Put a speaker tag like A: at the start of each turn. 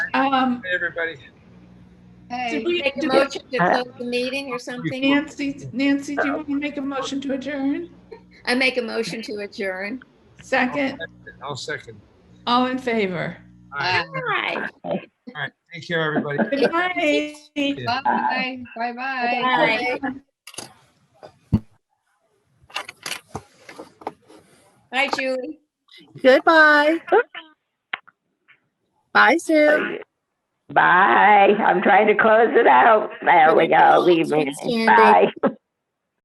A: Um,
B: Hey, everybody.
A: Did
C: Hey,
A: we-
C: make a
A: did we-
C: motion to close the meeting or something?
A: Nancy, Nancy, do you want to make a motion to adjourn?
C: I make a motion to adjourn.
A: Second,
B: I'll second.
A: all in favor?
B: All right,
C: Aye.
B: all right. Take care, everybody.
A: Good night.
D: Bye, bye-bye.
C: Aye. Hi, Julie.
E: Goodbye. Bye, Sue.
F: Bye. I'm trying to close it out. There we go. Leave me.
E: Sandy.
F: Bye.